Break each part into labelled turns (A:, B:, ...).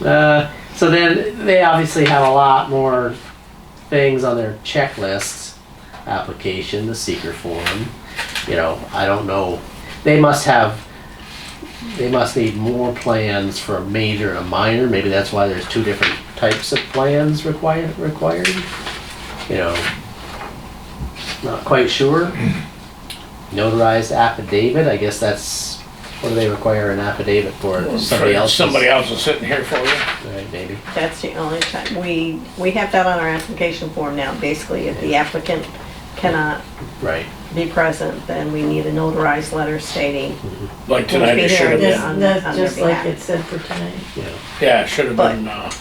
A: Uh, so then they obviously have a lot more things on their checklist application, the seeker form. You know, I don't know. They must have. They must need more plans for a major and a minor. Maybe that's why there's two different types of plans required. Required. You know. Not quite sure. Notarized affidavit. I guess that's what do they require an affidavit for? Somebody else.
B: Somebody else is sitting here for you.
A: Right, maybe.
C: That's the only time, we, we have that on our application form now, basically, if the applicant cannot
A: Right.
C: be present, then we need a notarized letter stating.
B: Like tonight, it
C: Who's
B: should have
C: being
B: been,
C: on-
D: That's,
C: on
D: that's
C: their
D: just like
C: behalf.
D: it said for tonight.
A: Yeah.
B: yeah, it should have
C: But-
B: been, uh,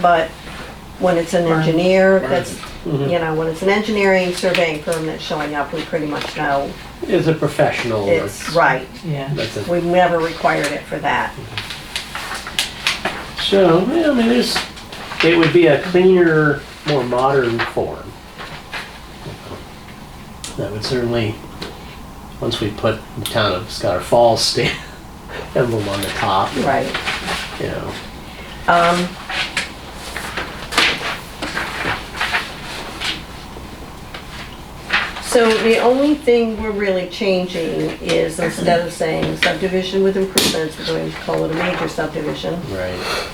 C: But when it's an engineer, that's,
A: Mhm.
C: you know, when it's an engineering surveying firm that's showing up, we pretty much know
A: It's a professional.
C: it's right.
D: Yeah.
A: That's it.
C: We've never required it for that.
A: So, yeah, I mean, there's, it would be a cleaner, more modern form. That would certainly, once we put the town of Scholar Falls stamp emblem on the top, you
C: Right.
A: know.
C: Um, So the only thing we're really changing is instead of saying subdivision with improvements, we're going to call it a major subdivision.
A: Right.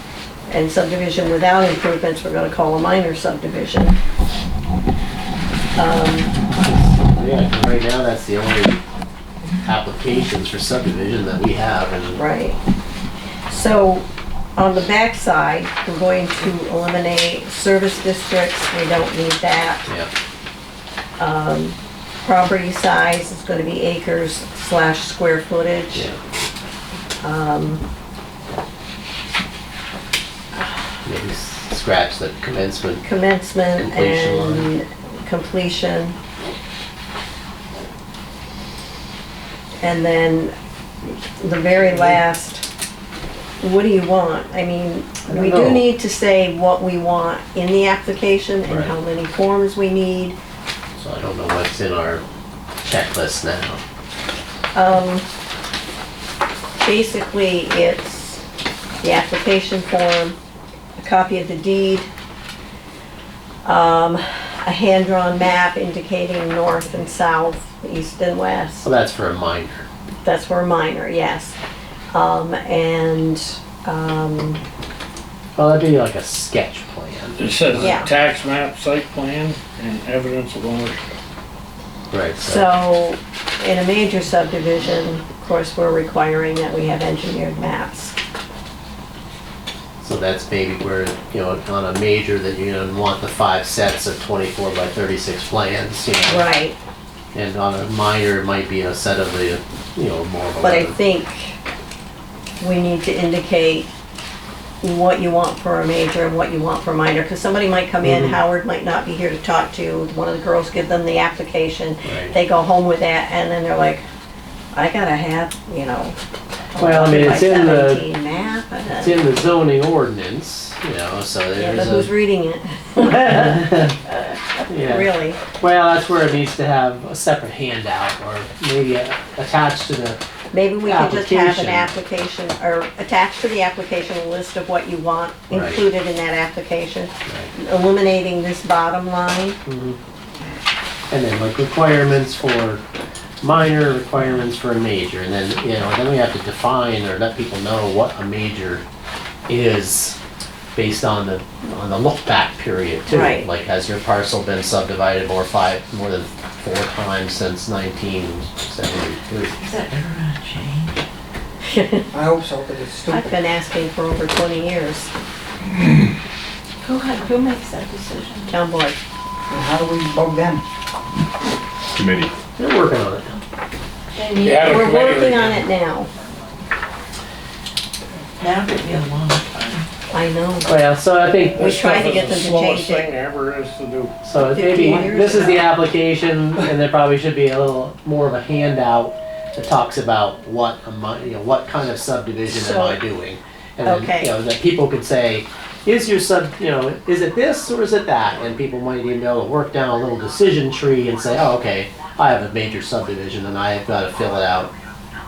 C: And subdivision without improvements, we're gonna call a minor subdivision. Um,
A: Yeah, right now, that's the only applications for subdivision that we have and.
C: Right. So on the backside, we're going to eliminate service districts, we don't need that.
A: Yeah,
C: Um, Property size is gonna be acres slash square footage.
A: yeah.
C: Um,
A: Maybe scratch the commencement.
C: Commencement
A: Completion
C: and completion. And then the very
A: Mm-hmm.
C: last, what do you want? I mean,
A: I don't
C: we do
A: know.
C: need to say what we want in the application and
A: Right.
C: how many forms we need.
A: So I don't know what's in our checklist now.
C: Um, basically, it's the application form, a copy of the deed, um, a hand-drawn map indicating north and south, east and west.
A: Well, that's for a minor.
C: That's for minor, yes. Um, and, um,
A: Well, that'd be like a sketch plan.
B: it says
C: Yeah.
B: tax map, site plan, and evidence of ownership.
A: Right, so,
C: so in a major subdivision, of course, we're requiring that we have engineered maps.
A: so that's maybe where, you know, on a major that you're gonna want the five sets of twenty-four by thirty-six plans, you know.
C: Right.
A: And on a minor, it might be a set of the, you know, more of a.
C: But I think we need to indicate what you want for a major and what you want for a minor, because somebody might come in,
A: Mhm.
C: Howard might not be here to talk to, one of the girls give them the application,
A: Right.
C: they go home with that, and then they're like, I gotta have, you know,
A: Well, I mean, it's in the-
C: 11 by 17 map, and
A: It's
C: then-
A: in the zoning ordinance, you know, so
C: yeah, uh, but
A: there's
C: who's
A: a,
C: reading it,
A: yeah.
C: really?
A: Well, that's where it needs to have a separate handout or maybe a- attached to the,
C: Maybe we could just have an
A: Application.
C: application, or attach to the application a list of what you want
A: Right.
C: included in that application. eliminating this bottom line.
A: And then like requirements for minor, requirements for a major, and then, you know, then we have to define or let people know what a major is based on the, on the look back period too.
C: Right.
A: Like, has your parcel been subdivided more five, more than four times since nineteen seventy-three?
D: Is that ever gonna change?
E: I hope so, because it's stupid.
C: I've been asking for over 20 years,
D: Who, had- who makes that decision?
C: town board.
E: And How do we bug them?
F: committee.
A: They're working on it.
D: They need,
B: Yeah. Out of
C: We're
B: committee
C: working
B: right
C: on
B: now.
C: it now.
D: that would be a long time.
C: I know.
A: Well, so I think
C: We tried to get them to
B: Slowest
C: change
B: thing
C: it.
B: ever is to do.
A: So maybe,
C: 15 years
A: this is the
C: ago.
A: application, and there probably should be a little more of a handout that talks about what am I, you know, what kind of subdivision am I
C: So-
A: doing? And then,
C: Okay.
A: you know, that people could say, is your sub, you know, is it this or is it that? And people might even be able to work down a little decision tree and say, oh, okay, I have a major subdivision and I have gotta fill it out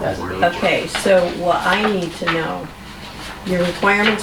A: as a major.
C: Okay, so what I need to know, your requirements